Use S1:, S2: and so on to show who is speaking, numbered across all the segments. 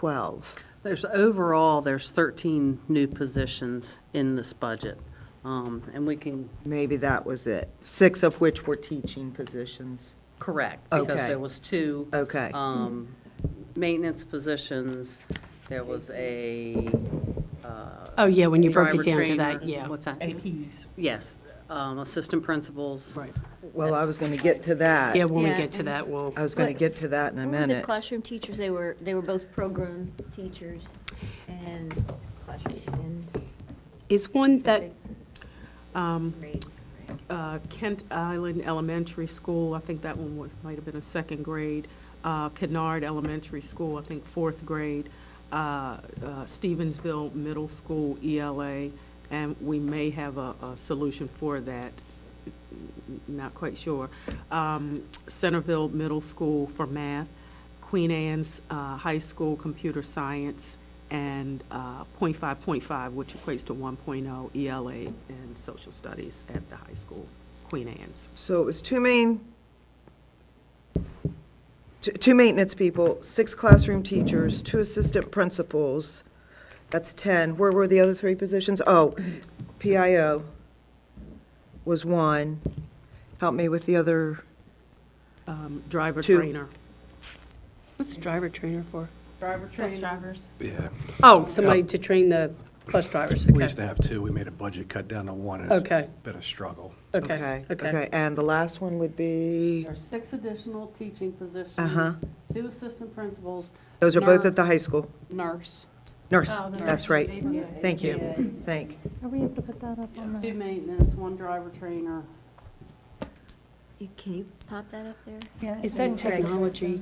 S1: 12.
S2: There's, overall, there's 13 new positions in this budget. Um, And we can,
S1: Maybe that was it. Six of which were teaching positions.
S2: correct,
S1: Okay.
S2: because there was two.
S1: Okay.
S3: Uh,
S2: um, Maintenance positions, there was a. uh,
S3: Oh, yeah, when you broke
S2: driver
S3: it down to that,
S2: trainer.
S3: yeah.
S2: What's that?
S4: APs.
S2: Yes, um, assistant principals.
S3: Right.
S1: Well, I was going to get to that.
S3: Yeah, when we
S5: Yeah.
S3: get to that, we'll,
S1: I was going to get to that in a
S5: Remember The
S1: minute.
S5: classroom teachers, they were, they were both program teachers and classroom and
S3: is one that,
S5: specific
S4: Um,
S5: grades.
S4: uh, Kent Island Elementary School, I think that one was- might have been a second grade. Uh, Kennard Elementary School, I think fourth grade. Uh, uh, Stevensville Middle School, ELA, and we may have a a solution for that, not quite sure. Um, Centerville Middle School for math, Queen Anne's uh, High School Computer Science, and uh, .5.5, which equates to 1.0 ELA and social studies at the high school, Queen Anne's.
S1: So it was two main, two- two maintenance people, six classroom teachers, two assistant principals. That's 10. Where were the other three positions? Oh, PIO was one. Help me with the other,
S4: Um, Driver
S1: Two.
S4: trainer.
S3: what's the driver trainer for?
S4: Driver trainer.
S6: Yeah,
S3: Oh, somebody
S4: uh,
S3: to train the bus drivers,
S6: we
S3: okay.
S6: used to have two, we made a budget cut down to one, and it's
S3: Okay.
S6: been a struggle.
S3: Okay, okay.
S1: Okay, and the last one would be,
S2: There are six additional teaching positions.
S1: Uh-huh.
S2: Two assistant principals.
S1: those are both
S2: nurse-
S1: at the high school.
S2: Nurse,
S1: Nurse,
S2: Oh, the
S1: that's
S2: nurse.
S1: right.
S2: Yeah.
S1: Thank
S2: Yeah.
S1: you. Thank.
S7: Are we able to put that up on
S2: two
S7: the,
S2: maintenance, one driver trainer.
S5: You- Can you pop that up there?
S7: yeah,
S3: Is that technology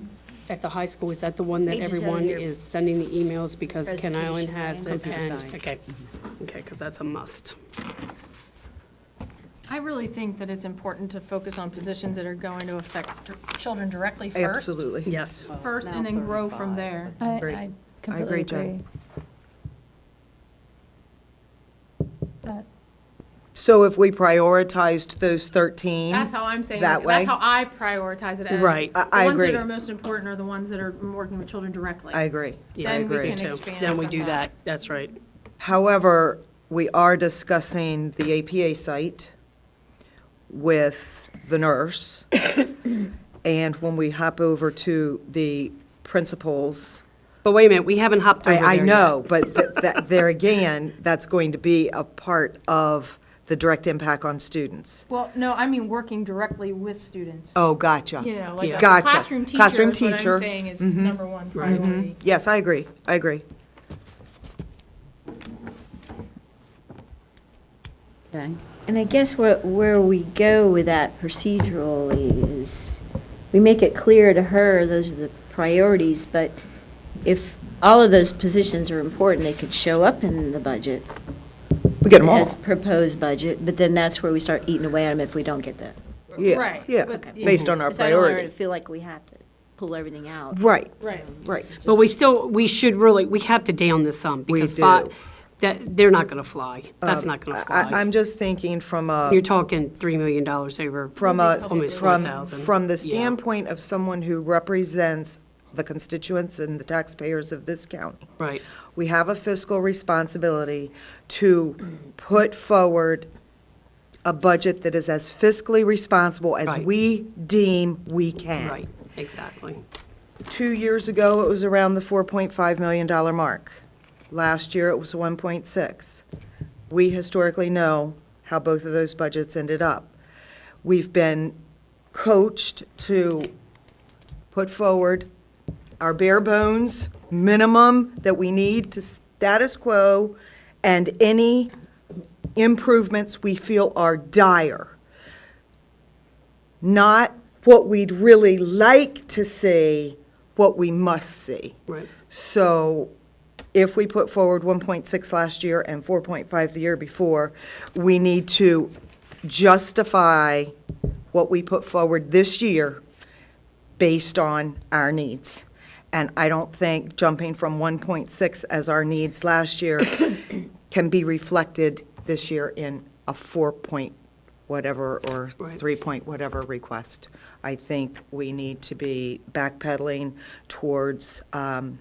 S3: at the high school, is that the one that
S5: Pages out of
S3: everyone
S5: your
S3: is sending the emails because Ken Island
S5: presentation,
S3: has
S5: right?
S3: it?
S2: Computer
S3: and-
S2: science.
S3: Okay, okay, because that's a must.
S7: I really think that it's important to focus on positions that are going to affect dir- children directly first.
S1: Absolutely.
S3: Yes.
S7: First, and then grow from there.
S1: I agree.
S7: I completely
S1: agree, Jen.
S7: agree. That-
S1: So if we prioritized those 13?
S8: That's how I'm saying,
S1: That way?
S8: that's how I prioritize it as.
S3: Right.
S1: I- I
S8: The ones
S1: agree.
S8: that are most important are the ones that are working with children directly.
S1: I agree.
S3: Yeah,
S1: I
S3: I
S7: Then we
S1: agree.
S3: agree
S7: can
S3: too.
S7: expand
S3: Then we
S7: on
S3: do
S7: that.
S3: that, that's right.
S1: However, we are discussing the APA site with the nurse. And when we hop over to the principals,
S3: But wait a minute, we haven't hopped over there
S1: I, I
S3: yet.
S1: know, but th- that, there again, that's going to be a part of the direct impact on students.
S7: Well, no, I mean, working directly with students.
S1: Oh, gotcha.
S7: You know, like a
S1: Gotcha.
S7: classroom teacher
S1: Classroom
S7: is what
S1: teacher. Mm-hmm.
S7: I'm saying is number one priority.
S1: Yes, I agree, I agree.
S2: Okay.
S5: And I guess what, where we go with that procedurally is, we make it clear to her, those are the priorities, but if all of those positions are important, they could show up in the budget.
S1: We get them all.
S5: As proposed budget, but then that's where we start eating away at them if we don't get that.
S1: Yeah,
S8: Right,
S1: Yeah,
S8: but-
S1: based on our
S5: Because I don't want her to
S1: priority.
S5: Feel like we have to pull everything out.
S1: Right,
S8: Right.
S1: right.
S3: But we still, we should really, we have to down this some.
S1: We
S3: because
S1: do. Um,
S3: fi- That, they're not going to fly. That's not going to
S1: I,
S3: fly.
S1: I'm just thinking from a.
S3: You're talking $3 million over.
S1: from a,
S3: Almost
S1: from,
S3: 4,000.
S1: from the
S3: Yeah.
S1: standpoint of someone who represents the constituents and the taxpayers of this county,
S3: Right,
S1: we have a fiscal responsibility to put forward a budget that is as fiscally responsible as
S3: Right.
S1: we deem we can.
S3: right, exactly.
S1: Two years ago, it was around the $4.5 million mark. Last year, it was 1.6. We historically know how both of those budgets ended up. We've been coached to put forward our bare bones minimum that we need to status quo and any improvements we feel are dire not what we'd really like to see, what we must see.
S3: Right.
S1: So if we put forward 1.6 last year and 4.5 the year before, we need to justify what we put forward this year based on our needs. And I don't think jumping from 1.6 as our needs last year can be reflected this year in a 4 point whatever or
S3: Right.
S1: 3 point whatever request. I think we need to be backpedaling towards um,